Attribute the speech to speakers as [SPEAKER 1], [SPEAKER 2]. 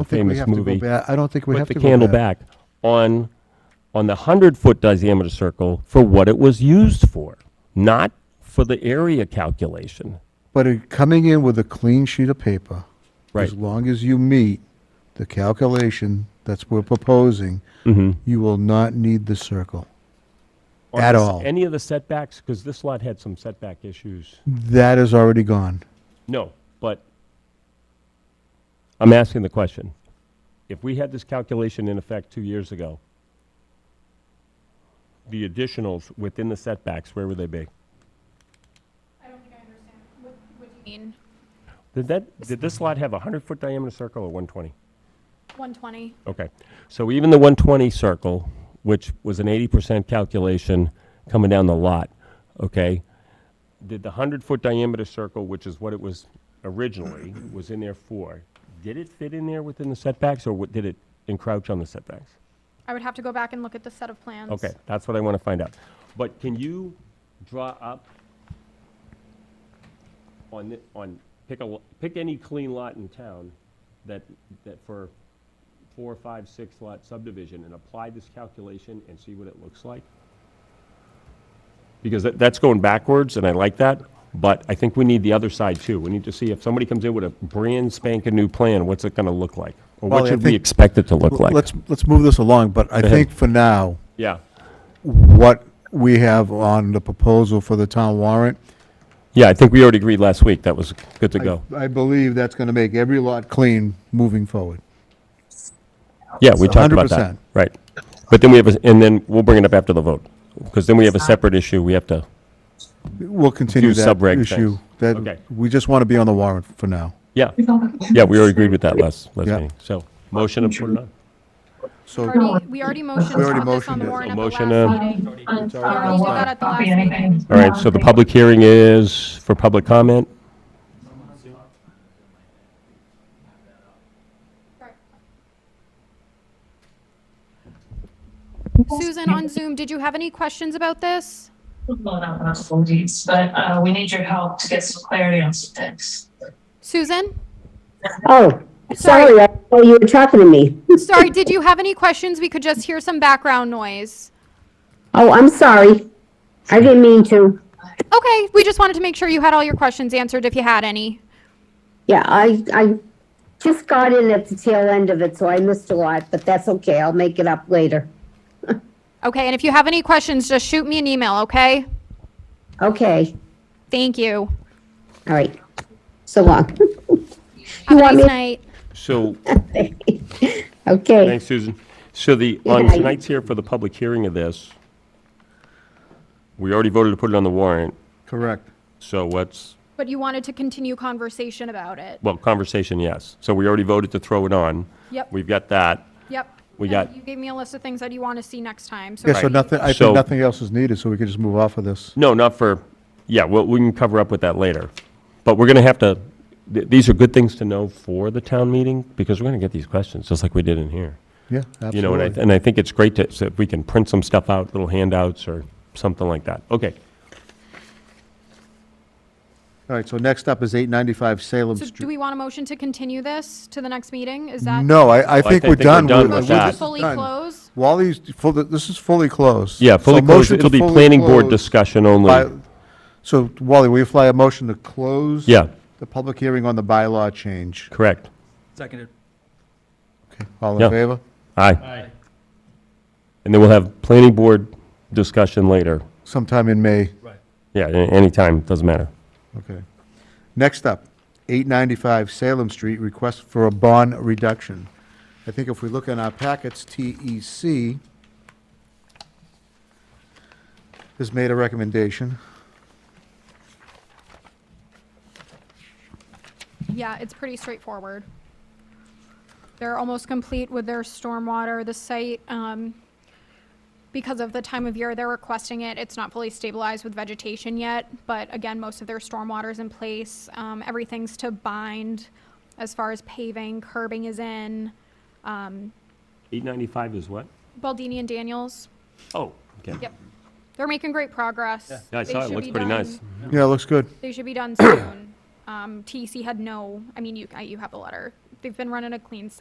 [SPEAKER 1] I
[SPEAKER 2] the
[SPEAKER 1] don't think we
[SPEAKER 2] famous
[SPEAKER 1] have to go
[SPEAKER 2] movie.
[SPEAKER 1] back- I don't think we have
[SPEAKER 2] Put
[SPEAKER 1] to
[SPEAKER 2] the
[SPEAKER 1] go
[SPEAKER 2] candle back on, on the 100-foot diameter circle for what it was used for, not for the area calculation.
[SPEAKER 1] But it- coming in with a clean sheet of paper, as
[SPEAKER 2] Right.
[SPEAKER 1] long as you meet the calculation that's we're proposing,
[SPEAKER 2] Mm-hmm.
[SPEAKER 1] you will not need the circle
[SPEAKER 2] Or
[SPEAKER 1] at
[SPEAKER 2] s-
[SPEAKER 1] all.
[SPEAKER 2] Any of the setbacks, because this lot had some setback issues.
[SPEAKER 1] That is already gone.
[SPEAKER 2] No, but I'm asking the question. If we had this calculation in effect two years ago, the additionals within the setbacks, where would they be?
[SPEAKER 3] I don't think I understand. What, what do you mean?
[SPEAKER 2] Did that, did this lot have a 100-foot diameter circle or 120?
[SPEAKER 3] 120?
[SPEAKER 2] Okay, so even the 120 circle, which was an 80% calculation coming down the lot, okay? Did the 100-foot diameter circle, which is what it was originally, was in there for, did it fit in there within the setbacks, or what- did it encroach on the setbacks?
[SPEAKER 3] I would have to go back and look at the set of plans.
[SPEAKER 2] Okay, that's what I want to find out. But can you draw up on, thi- on, pick a, lo- pick any clean lot in town that, that for four, five, six lot subdivision and apply this calculation and see what it looks like? Because that, that's going backwards and I like that, but I think we need the other side too. We need to see if somebody comes in with a brand spanking new plan, what's it going to look like? Or
[SPEAKER 1] Well,
[SPEAKER 2] what
[SPEAKER 1] I
[SPEAKER 2] should we
[SPEAKER 1] think-
[SPEAKER 2] expect it to look like?
[SPEAKER 1] Let's, let's move this along, but I
[SPEAKER 2] ahead.
[SPEAKER 1] think for now,
[SPEAKER 2] Yeah,
[SPEAKER 1] what we have on the proposal for the town warrant,
[SPEAKER 2] yeah, I think we already agreed last week, that was good to
[SPEAKER 1] I-
[SPEAKER 2] go.
[SPEAKER 1] I believe that's going to make every lot clean moving forward.
[SPEAKER 2] Yeah, we talked about that.
[SPEAKER 1] 100%.
[SPEAKER 2] Right. But then we have, a and then we'll bring it up after the vote, because then we have a separate issue we have to,
[SPEAKER 1] We'll continue
[SPEAKER 2] Few
[SPEAKER 1] that
[SPEAKER 2] sub-reg
[SPEAKER 1] issue.
[SPEAKER 2] things. Okay.
[SPEAKER 1] That, we just want to be on the warrant for now.
[SPEAKER 2] yeah. Yeah, we already agreed with that last, last
[SPEAKER 1] Yeah.
[SPEAKER 2] meeting. So, motion to put it on.
[SPEAKER 1] So,
[SPEAKER 3] Already, we already motioned
[SPEAKER 1] We already
[SPEAKER 3] on this on
[SPEAKER 1] motioned
[SPEAKER 3] the
[SPEAKER 1] it.
[SPEAKER 3] warrant
[SPEAKER 2] So
[SPEAKER 3] at the last
[SPEAKER 2] motion, uh,
[SPEAKER 3] meeting. We already did that at the last meeting.
[SPEAKER 2] All right, so the public hearing is for public comment?
[SPEAKER 3] Susan, on Zoom, did you have any questions about this?
[SPEAKER 4] Well, not enough full deeds, but uh, we need your help to get some clarity on some things.
[SPEAKER 3] Susan?
[SPEAKER 5] Oh,
[SPEAKER 3] Sorry.
[SPEAKER 5] sorry, I thought you were talking to me.
[SPEAKER 3] Sorry, did you have any questions? We could just hear some background noise.
[SPEAKER 5] Oh, I'm sorry. I didn't mean to.
[SPEAKER 3] Okay, we just wanted to make sure you had all your questions answered if you had any.
[SPEAKER 5] Yeah, I, I just got in at the tail end of it, so I missed a lot, but that's okay. I'll make it up later.
[SPEAKER 3] Okay, and if you have any questions, just shoot me an email, okay?
[SPEAKER 5] Okay,
[SPEAKER 3] Thank you.
[SPEAKER 5] all right. So long.
[SPEAKER 3] Have a nice
[SPEAKER 5] want me-
[SPEAKER 3] night.
[SPEAKER 2] So,
[SPEAKER 5] Okay,
[SPEAKER 2] thanks, Susan. So the,
[SPEAKER 5] Yeah,
[SPEAKER 2] on
[SPEAKER 5] I-
[SPEAKER 2] tonight's here for the public hearing of this, we already voted to put it on the warrant,
[SPEAKER 1] correct.
[SPEAKER 2] so what's,
[SPEAKER 3] But you wanted to continue conversation about it.
[SPEAKER 2] well, conversation, yes. So we already voted to throw it on.
[SPEAKER 3] Yep.
[SPEAKER 2] We've got that.
[SPEAKER 3] Yep.
[SPEAKER 2] We
[SPEAKER 3] And
[SPEAKER 2] got-
[SPEAKER 3] You gave me a list of things that you want to see next time, so.
[SPEAKER 1] Yeah, so
[SPEAKER 3] maybe-
[SPEAKER 1] nothing, I
[SPEAKER 2] So-
[SPEAKER 1] think nothing else is needed, so we can just move off of this.
[SPEAKER 2] No, not for, yeah, well, we can cover up with that later. But we're going to have to, th- these are good things to know for the town meeting, because we're going to get these questions, just like we did in here.
[SPEAKER 1] Yeah,
[SPEAKER 2] You know, and I,
[SPEAKER 1] absolutely.
[SPEAKER 2] and I think it's great to, so if we can print some stuff out, little handouts or something like that. Okay,
[SPEAKER 1] All right, so next up is 895 Salem
[SPEAKER 3] So do
[SPEAKER 1] Street.
[SPEAKER 3] we want a motion to continue this to the next meeting? Is that?
[SPEAKER 1] No, I, I
[SPEAKER 2] I
[SPEAKER 1] think
[SPEAKER 2] think
[SPEAKER 1] we're
[SPEAKER 2] we're
[SPEAKER 1] done.
[SPEAKER 2] done
[SPEAKER 1] We're-
[SPEAKER 2] with
[SPEAKER 1] we're-
[SPEAKER 2] that.
[SPEAKER 1] this is
[SPEAKER 3] Fully
[SPEAKER 1] done.
[SPEAKER 3] close?
[SPEAKER 1] Wally's, full- this is fully closed.
[SPEAKER 2] yeah,
[SPEAKER 1] So
[SPEAKER 2] fully closed,
[SPEAKER 1] motion to
[SPEAKER 2] it'll be
[SPEAKER 1] fully
[SPEAKER 2] planning board
[SPEAKER 1] close
[SPEAKER 2] discussion only.
[SPEAKER 1] by- So Wally, will you fly a motion to close?
[SPEAKER 2] Yeah.
[SPEAKER 1] The public hearing on the bylaw change.
[SPEAKER 2] Correct.
[SPEAKER 6] Seconded.
[SPEAKER 1] All
[SPEAKER 2] Yeah.
[SPEAKER 1] in favor?
[SPEAKER 2] Aye.
[SPEAKER 6] Aye.
[SPEAKER 2] And then we'll have planning board discussion later.
[SPEAKER 1] Sometime in May.
[SPEAKER 6] Right.
[SPEAKER 2] Yeah, a- anytime, doesn't matter.
[SPEAKER 1] Okay. Next up, 895 Salem Street, request for a bond reduction. I think if we look in our packets, E TEC has made a recommendation.
[SPEAKER 3] Yeah, it's pretty straightforward. They're almost complete with their stormwater. The site, um, because of the time of year they're requesting it, it's not fully stabilized with vegetation yet. But again, most of their stormwater's in place. Um, everything's to bind as far as paving, curbing is in.
[SPEAKER 2] 895 is what?
[SPEAKER 3] Baldini and Daniels,
[SPEAKER 2] Oh, okay.
[SPEAKER 3] yep. They're making great progress.
[SPEAKER 2] Yeah, I
[SPEAKER 3] They
[SPEAKER 2] saw it,
[SPEAKER 3] should
[SPEAKER 2] looks
[SPEAKER 3] be
[SPEAKER 2] pretty
[SPEAKER 3] done-
[SPEAKER 2] nice.
[SPEAKER 1] Yeah, looks good.
[SPEAKER 3] They should be done soon. Um, TC had no, I mean, you, I- you have the letter. They've been running a clean site.